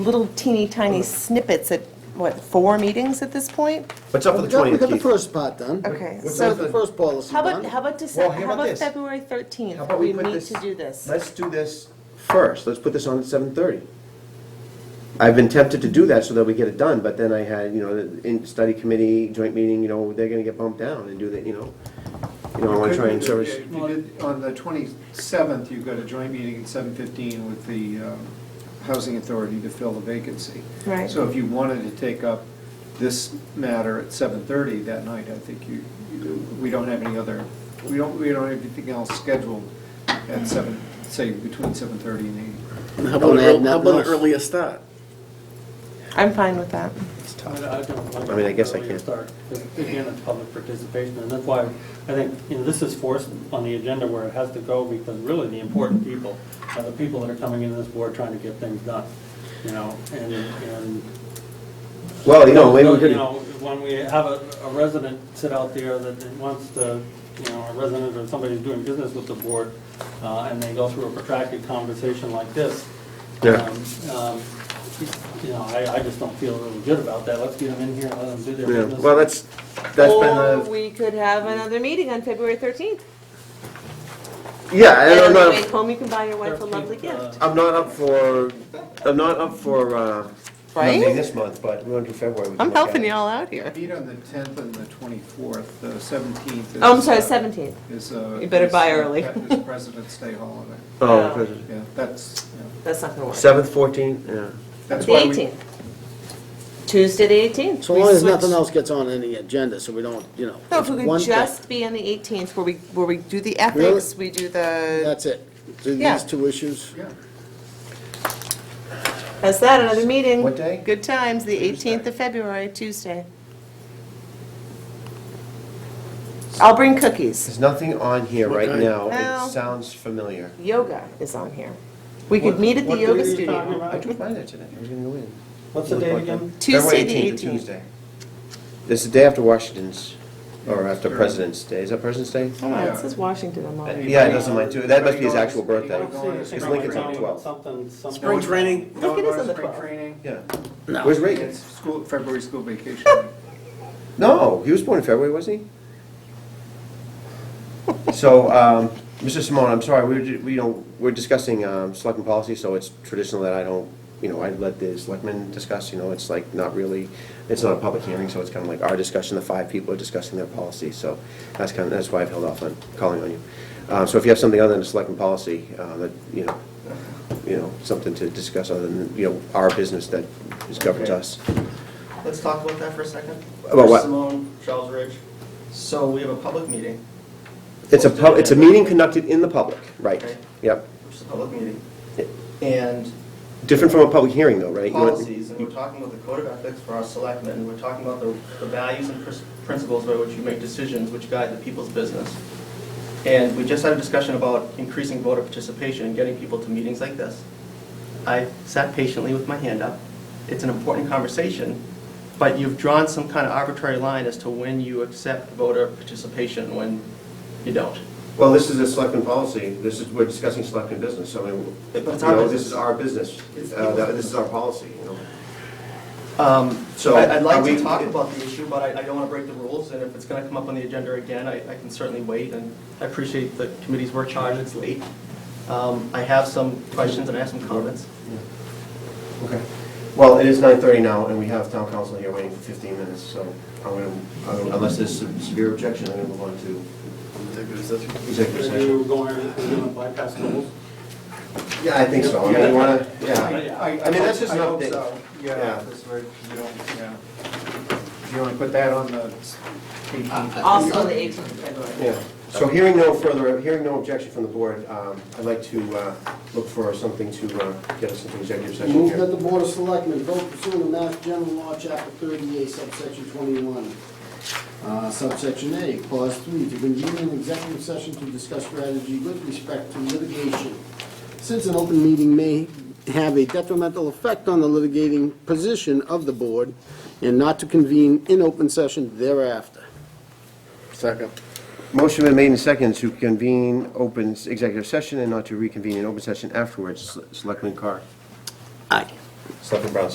little teeny tiny snippets at, what, four meetings at this point? What's up for We the got- We got the 20th, Keith? first part done. Okay, We so- got the first policy How about, done. how about Well, December, how how about about this? February How 13th? about We put meet to do this. Let's do this first, let's put this on at 7:30. I've been tempted to do that so that we get it done, but then I had, you know, the in study committee, joint meeting, you know, they're gonna get bumped down and do that, you know. You know, I wanna try and service, If you did- On the 27th, you've got a joint meeting at 7:15 with the um, Housing Authority to fill the vacancy. Right. So if you wanted to take up this matter at 7:30 that night, I think you, you- we don't have any other, we don't, we don't have anything else scheduled at 7, say, between 7:30 and 8. How about adding that note? start? I'm fine with that. it's I tough. don't like I mean, I guess I earlier can't. start, 'cause Again, it's public participation, and that's why I think, you know, this is forced on the agenda where it has to go, because really the important people are the people that are coming into this board trying to get things done, you know, and, and. Well, you know, maybe we You could, know, when we have a a resident sit out there that wants to, you know, a resident or somebody who's doing business with the board, uh, and they go through a protracted conversation like this, Yeah. um, um, you know, I, I just don't feel really good about that. Let's get them in here and let them do their yeah, business. well, that's, that's been Or the, we could have another meeting on February 13th. yeah, I And don't on know. the if- way home, you can buy your wife a lovely 13th, uh, gift. I'm not up for, I'm not up for, uh, Right? Monday this month, but we're into February. we can I'm look at helping it. you all out here. Meet on the 10th and the 24th, the 17th is. Oh, I'm sorry, uh, 17th. Is, uh. You better is, buy uh, early. Is President's Day holiday, Oh, President. yeah, that's, yeah. That's not gonna work. seventh, fourteenth, yeah. That's The why we- 18th. Tuesday, the 18th. So We long as switch- nothing else gets on any agenda, so we don't, you know. No, if it's we one could thing. just be on the 18th where we, where we do the ethics, we do the, That's it. So Yeah. These two issues. Yeah. that's that, another meeting. What day? Good times, the 18th of February, Tuesday. I'll bring cookies. There's nothing on here right Okay. now. Well- It sounds familiar. Yoga is on here. We could What- meet at the what day yoga are you talking studio. about? I took mine there today. I was gonna go in. What's the date again? Tuesday, February the 18th, 18th. Tuesday. It's the day after Washington's, or after President's Day. Is that President's Day? Oh, no, Yeah. it says Washington on mine. Yeah, it doesn't mind too. That must be his actual birthday. Anybody going- It's Lincoln's on the 12th. Something, something. Spring training, Look, it is on the Spring 12th. training. Yeah. No. Where's Reagan? It's school, February school vacation. No, he was born in February, wasn't he? So, um, Mr. Simone, I'm sorry, we were, ju- we, you know, we're discussing, um, selectmen policy, so it's traditional that I don't, you know, I let the selectmen discuss, you know, it's like not really, it's not a public hearing, so it's kind of like our discussion, the five people are discussing their policy, so that's kind of, that's why I've held off on calling on you. Uh, so if you have something other than a selectman policy, uh, that, you know, you know, something to discuss other than, you know, our business that is governs Okay. us. Let's talk about that for a second. About what? Chris Simone, Charles Ridge. So we have a public meeting, It's a, pub- it's a meeting conducted in the public, right, Right. yep. which is a public meeting, and Different from a public hearing, though, right? You want- policies, and we're talking about the code of ethics for our selectmen, and we're talking about the the values and pris- principles by which you make decisions which guide the people's business. And we just had a discussion about increasing voter participation and getting people to meetings like this. I sat patiently with my hand up. It's an important conversation, but you've drawn some kind of arbitrary line as to when you accept voter participation and when you don't. Well, this is a selectman policy, this is, we're discussing selectman business, so, I mean, you But it's our know, this business. is our business, It's Uh, that- people's this is our policy, you know? Um, So, So I'd are like we- to talk about the issue, but I I don't want to break the rules, and if it's going to come up on the agenda again, I I can certainly wait, and I appreciate the committee's work charge, it's late. Um, I have some questions and I have some comments. Okay. Well, it is nine thirty now, and we have town council here waiting for fifteen minutes, so I'm gonna, I'm gonna- unless there's some severe objection, I'm gonna move on to executive Are session. you going, are you going to bypass rules? Yeah, I think so, I mean, you wanna, yeah. I I mean, that's just an I hope update. so. Yeah. Yeah, that's right, you don't, yeah. You want to put that on the 18th? Also on the 18th of February. Yeah, so hearing no further, hearing no objection from the board, um, I'd like to uh, look for something to uh, get us into executive session Move that here. the Board of Selectmen vote pursuant to Mass General Law, Chapter 38, subsection 21, uh, subsection A, clause 3, to convene an executive session to discuss strategy with respect to litigation. Since an open meeting may have a detrimental effect on the litigating position of the board, and not to convene in open session thereafter. Second. Motion been made in second to convene open executive session and not to reconvene in open session afterwards. Selectman Carr. Aye. Selectman Brown